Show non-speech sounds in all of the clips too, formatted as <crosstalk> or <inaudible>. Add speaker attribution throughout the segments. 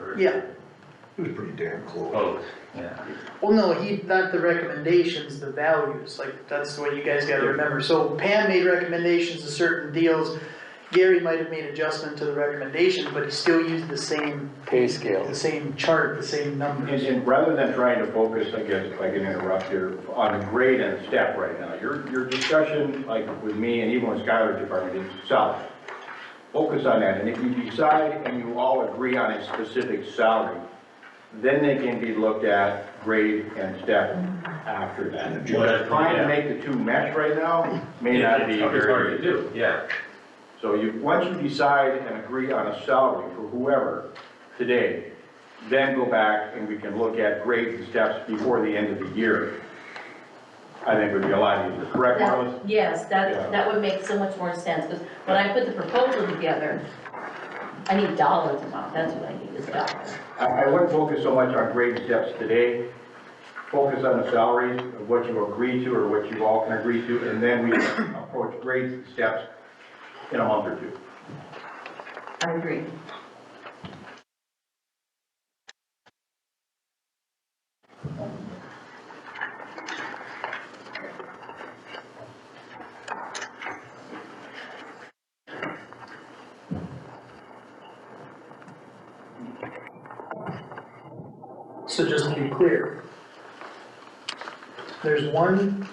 Speaker 1: or?
Speaker 2: Yeah,
Speaker 3: It was pretty damn close.
Speaker 1: Both, yeah.
Speaker 2: well, no, he, not the recommendations, the values, like, that's what you guys gotta remember, so Pam made recommendations to certain deals. Gary might have made adjustment to the recommendation, but he still used the same,
Speaker 4: pay scale.
Speaker 2: the same chart, the same
Speaker 5: And,
Speaker 2: numbers.
Speaker 5: and rather than trying to focus, I guess, if I can interrupt here, on grade and step right now, your, your discussion, like with me and even with Skylar's department, is salary. Focus on that, and if you decide and you all agree on a specific salary, then they can be looked at grade and step after that.
Speaker 1: What I-
Speaker 5: Trying to make the two mesh right now may not be
Speaker 1: It's hard to
Speaker 5: very.
Speaker 1: do, yeah.
Speaker 5: So you, once you decide and agree on a salary for whoever today, then go back and we can look at grades and steps before the end of the year. I think would be a lot easier, correct, Marlis?
Speaker 6: That- Yes,
Speaker 5: Yeah.
Speaker 6: that, that would make so much more sense, because when I put the proposal together, I need dollars amount, that's what I need, is dollars.
Speaker 5: I, I wouldn't focus so much on grade and steps today. Focus on the salaries of what you agree to or what you all can agree to, and then we can approach grades and steps in a month or two.
Speaker 6: I agree.
Speaker 2: So just to be clear. There's one,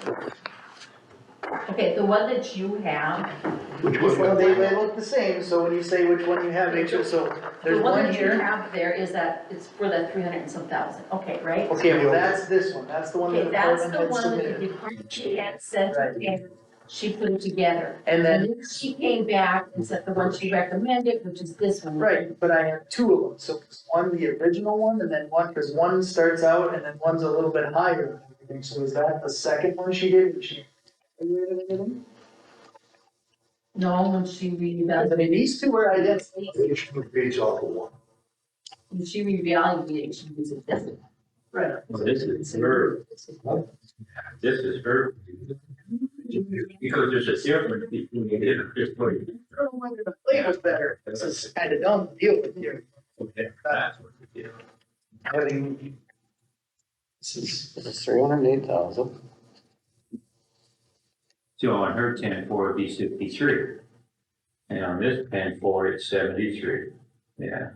Speaker 6: Okay, the one that you have,
Speaker 3: Which
Speaker 2: this one,
Speaker 3: one?
Speaker 2: they, they look the same, so when you say which one you have, make sure, so,
Speaker 6: the
Speaker 2: there's
Speaker 6: one
Speaker 2: one
Speaker 6: that you
Speaker 2: here.
Speaker 6: have there is that, it's for that three hundred and some thousand, okay, right?
Speaker 2: Okay, well, that's this one, that's the one that the
Speaker 6: Okay, that's
Speaker 2: department
Speaker 6: the
Speaker 2: had
Speaker 6: one that the
Speaker 2: submitted.
Speaker 6: department had sent,
Speaker 2: Right.
Speaker 6: and she put it together.
Speaker 2: And then
Speaker 6: And then she came back and said the one she recommended, which is this one.
Speaker 2: Right, but I have two of them, so it's one, the original one, and then one, cause one starts out and then one's a little bit higher. than everything. So is that the second one she did, was she? I
Speaker 6: No, when she reevaluated,
Speaker 2: mean, these two are identical,
Speaker 3: They should put page off of one.
Speaker 6: when she reevaluated, she was a different.
Speaker 2: right,
Speaker 1: This is her, this is her. Because there's a difference between the different.
Speaker 2: I don't know whether the flavor's better, this is kinda dumb to deal with here,
Speaker 1: Okay, that's what we do.
Speaker 2: having. This is,
Speaker 4: It's three hundred and eight thousand.
Speaker 1: So on her ten four, it'd be sixty-three. And on this ten four, it's seventy-three. Yeah. uh,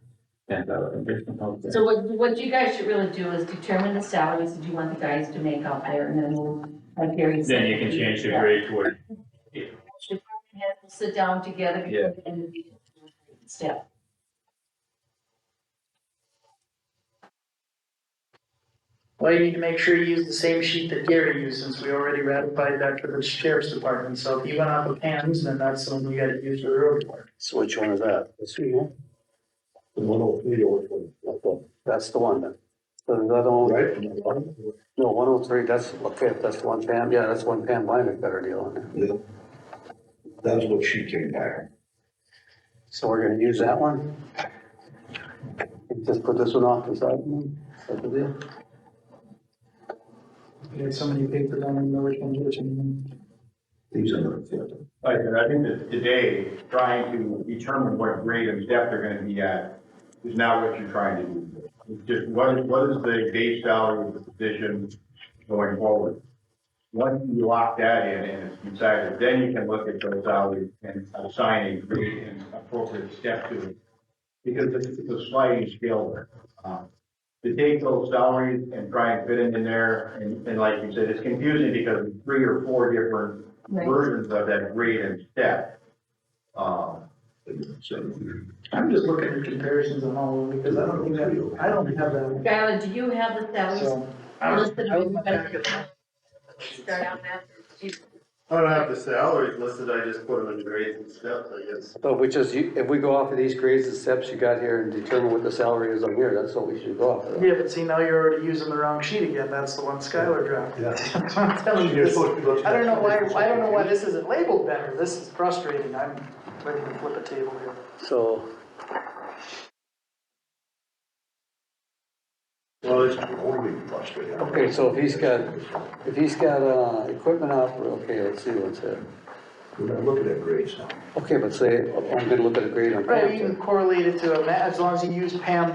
Speaker 1: Ten thousand different.
Speaker 6: So what, what you guys should really do is determine the salaries that you want the guys to make out there, and then we'll, like Gary said.
Speaker 1: Then you can change the grade toward,
Speaker 6: Department heads will sit down together.
Speaker 1: Yeah.
Speaker 6: And step.
Speaker 2: well, you need to make sure you use the same sheet that Gary used, since we already ratified that for the sheriff's department, so if you went off of Pam's, then that's the one we gotta use for the road department.
Speaker 4: So which one is that? This one here?
Speaker 3: The one oh three or one,
Speaker 4: That one. That's the one then. So the other one,
Speaker 3: right? And the bottom,
Speaker 4: no, one oh three, that's, okay, that's the one Pam, yeah, that's one Pam Blyer got her deal on there.
Speaker 3: yeah. That's what she came back.
Speaker 4: So we're gonna use that one? Just put this one off to the side, that's the deal.
Speaker 2: We had so many papers, I don't even know which one's which anymore.
Speaker 3: These are the fifth.
Speaker 5: Like, and I think that today, trying to determine what grade and depth they're gonna be at is not what you're trying to do. It's Just what is, what is the base salary of the position going forward? Once you lock that in and it's decided, then you can look at those salaries and assign a grade and appropriate step to it. Because it's it's a sliding scale there. Um, To take those salaries and try and fit them in there, and, and like you said, it's confusing because three or four different versions of that grade and step. Um,
Speaker 3: So,
Speaker 2: I'm just looking at comparisons on all of them, because I don't think that, I don't have that one,
Speaker 6: Skylar, do you have the salaries
Speaker 2: so.
Speaker 6: listed?
Speaker 2: I would look back at that.
Speaker 6: Start out with,
Speaker 7: I don't have the salaries listed, I just put them in grades and steps, I guess.
Speaker 4: So if we just, if we go off of these grades and steps you got here and determine what the salary is on here, that's what we should go off of.
Speaker 2: Yeah, but see, now you're already using the wrong sheet again, that's the one Skylar dropped.
Speaker 3: yeah.
Speaker 2: <laughs> That's what I'm telling you,
Speaker 3: You're
Speaker 2: this-
Speaker 3: supposed to go to-
Speaker 2: I don't know why, I don't know why this isn't labeled better, this is frustrating, I'm ready to flip a table here.
Speaker 4: So,
Speaker 3: Well, it's totally frustrating.
Speaker 4: okay, so if he's got, if he's got, uh, equipment opera, okay, let's see what's it.
Speaker 3: We're not looking at grades now.
Speaker 4: Okay, but say, I'm gonna look at a grade on.
Speaker 2: Right,
Speaker 4: Pam's.
Speaker 2: you can correlate it to a, ma- as long as you use Pam